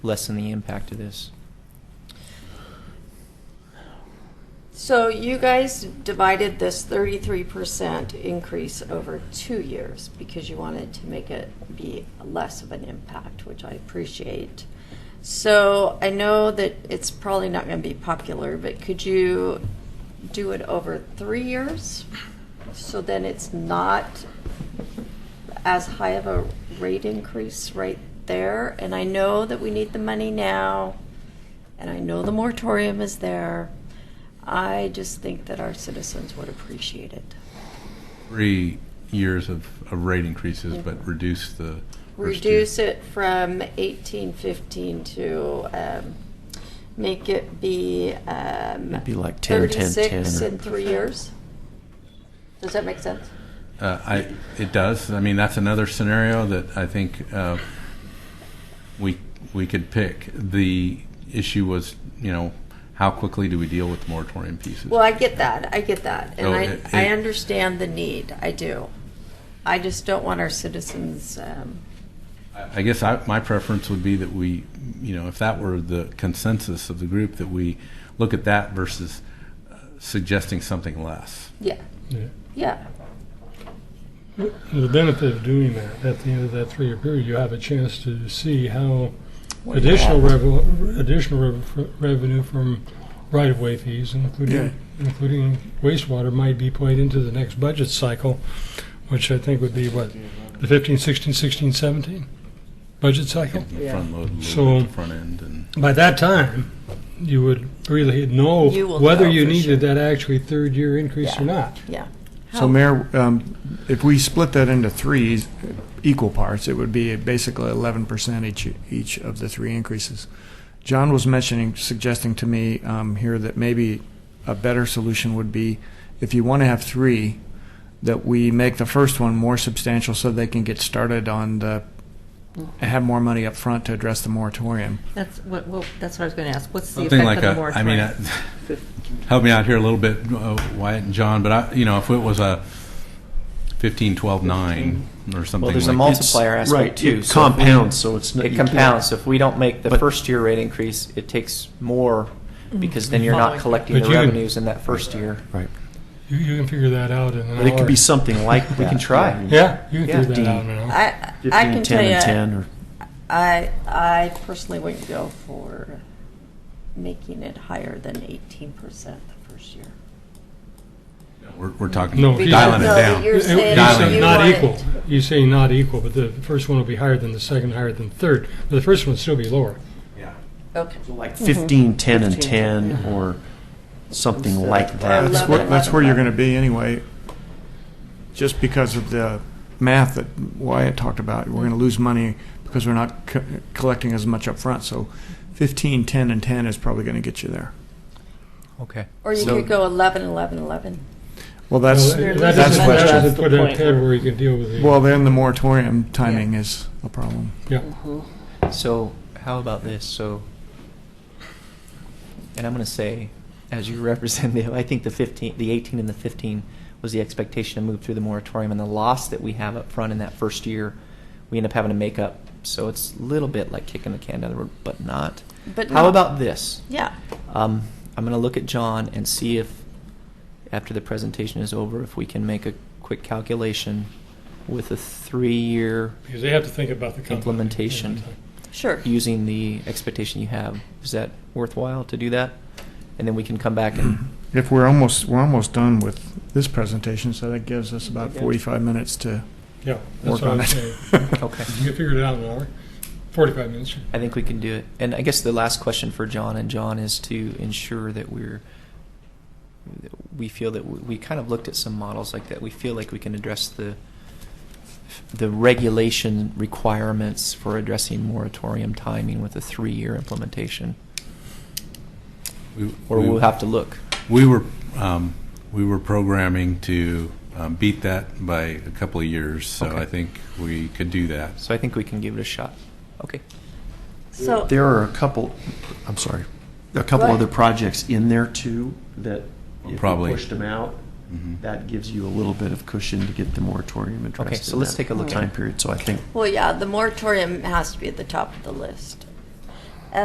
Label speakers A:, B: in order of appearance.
A: lessen the impact of this.
B: So you guys divided this thirty-three percent increase over two years because you wanted to make it be less of an impact, which I appreciate. So I know that it's probably not gonna be popular, but could you do it over three years? So then it's not as high of a rate increase right there. And I know that we need the money now, and I know the moratorium is there. I just think that our citizens would appreciate it.
C: three years of, of rate increases, but reduce the. first two.
B: Mm-hmm. Reduce it from eighteen fifteen to, um, make it be, um.
A: It'd be like 10, 10,
B: 36
A: 10.
B: in three years. Does that make sense?
C: Uh, I, it does. I mean, that's another scenario that I think uh, we we could pick. The issue was, you know, how quickly do we deal with the moratorium pieces?
B: Well, I get that, I get that, and
C: No,
B: I,
C: it-
B: I
C: it-
B: understand the need, I do. I just don't want our citizens, um,
C: I I guess I, my preference would be that we, you know, if that were the consensus of the group, that we look at that versus uh, suggesting something less.
B: yeah,
D: Yeah.
B: yeah,
D: The benefit of doing that, at the end of that three-year period, you have a chance to see how
A: What do you
D: additional
A: have?
D: revenue, additional rev- revenue from right-of-way fees, including, including wastewater, might be played into the next budget cycle, which I think would be what, the 15, 16, 16, 17 budget cycle?
B: Yeah.
C: Front load a little
D: So-
C: bit, the front end and.
D: By that time, you would really know
B: You will
D: whether
B: know
D: you
B: for
D: needed that actually third-year increase or
B: Yeah.
D: not.
B: yeah.
E: So Mayor, um, if we split that into three equal parts, it would be basically eleven percent each, each of the three increases. John was mentioning, suggesting to me, um, here that maybe a better solution would be, if you want to have three, that we make the first one more substantial so they can get started on the, have more money up front to address the moratorium.
F: That's what, well, that's what I was going to ask. What's the
C: Something
F: effect
C: like
F: of the
C: a, I
F: moratorium?
C: mean, I- help me out here a little bit, uh, Wyatt and John, but I, you know, if it was a 15, 12, 9 or something
A: Well,
C: like
A: there's a
C: that.
A: multiplier
G: It's-
A: aspect
G: right,
A: too.
G: it
A: so if we-
G: compounds, so it's not-
A: It
G: you can't-
A: compounds. So if we don't make the
G: But-
A: first year rate increase, it takes more
B: Mm-hmm.
A: because then you're
F: Following.
A: not collecting
D: But
A: the
D: you can-
A: revenues in that first year.
G: Right.
D: You, you can figure that out in an hour.
G: But it could be something like that.
A: We can try.
D: Yeah, you can
A: Yeah.
D: figure that out in an hour.
B: I, I can tell
G: Fifteen, ten,
B: you.
G: and ten, or
B: I, I personally wouldn't go for making it higher than eighteen percent the first year.
C: We're, we're talking,
D: No, he's-
C: dialing it
D: No,
C: down.
B: you're- saying
C: that you
D: not
B: want
D: equal.
B: it-
D: You say not equal, but the first one will be higher than the second, higher than the third. But the first one would still be lower.
C: Yeah.
B: Okay.
G: like fifteen, ten, and ten, or something like that.
E: That's
B: Eleven,
E: where, that's where you're
B: eleven.
E: gonna be anyway, just because of the math that Wyatt talked about. We're gonna lose money because we're not co- collecting as much up front. so fifteen, ten, and ten is probably gonna get you there.
A: Okay.
B: Or you
A: So-
B: could go eleven, eleven, eleven.
E: Well, that's,
D: No, that
E: that's,
D: doesn't- that
F: question.
D: doesn't
F: That's the
D: put it
F: point.
D: ahead where you can deal with the.
E: well, then the moratorium timing is a problem.
D: yeah.
A: So how about this? So, and I'm going to say, as your representative, I think the 15, the 18 and the 15 was the expectation to move through the moratorium, and the loss that we have up front in that first year, we end up having to make up. So it's a little bit like kicking the can down the road, but not.
B: But
A: how
B: not-
A: about this?
B: Yeah.
A: Um, I'm going to look at John and see if, after the presentation is over, if we can make a quick calculation with a three-year
D: Because they have to think about the company.
A: Implementation.
B: Sure.
A: using the expectation you have. Is that worthwhile to do that? And then we can come back and
E: If we're almost, we're almost done with this presentation, so that gives us about forty-five minutes to
D: Yeah, that's
E: work
D: what
E: on
D: I'm
E: it.
D: saying.
A: okay.
D: You can figure it out in an hour, 45 minutes.
A: I think we can do it. And I guess the last question for John and John is to ensure that we're that we feel that we, we kind of looked at some models like that. We feel like we can address the the regulation requirements for addressing moratorium timing with a three-year implementation,
C: We-
A: or
C: we-
A: we'll have to look.
C: We were, um, we were programming to um, beat that by a couple of years, so
A: Okay.
C: I think we could do that.
A: So I think we can give it a shot. Okay.
B: So
G: There are a couple, I'm sorry, a couple
B: Right.
G: other projects in there too that if you
C: Probably.
G: pushed them out,
C: Mhm.
G: that gives you a little bit of cushion to get the moratorium addressed.
A: Okay, so
G: in
A: let's
G: that
A: take a look at
G: Time
A: it.
G: period, so I think
B: Well, yeah, the moratorium has to be at the top of the list.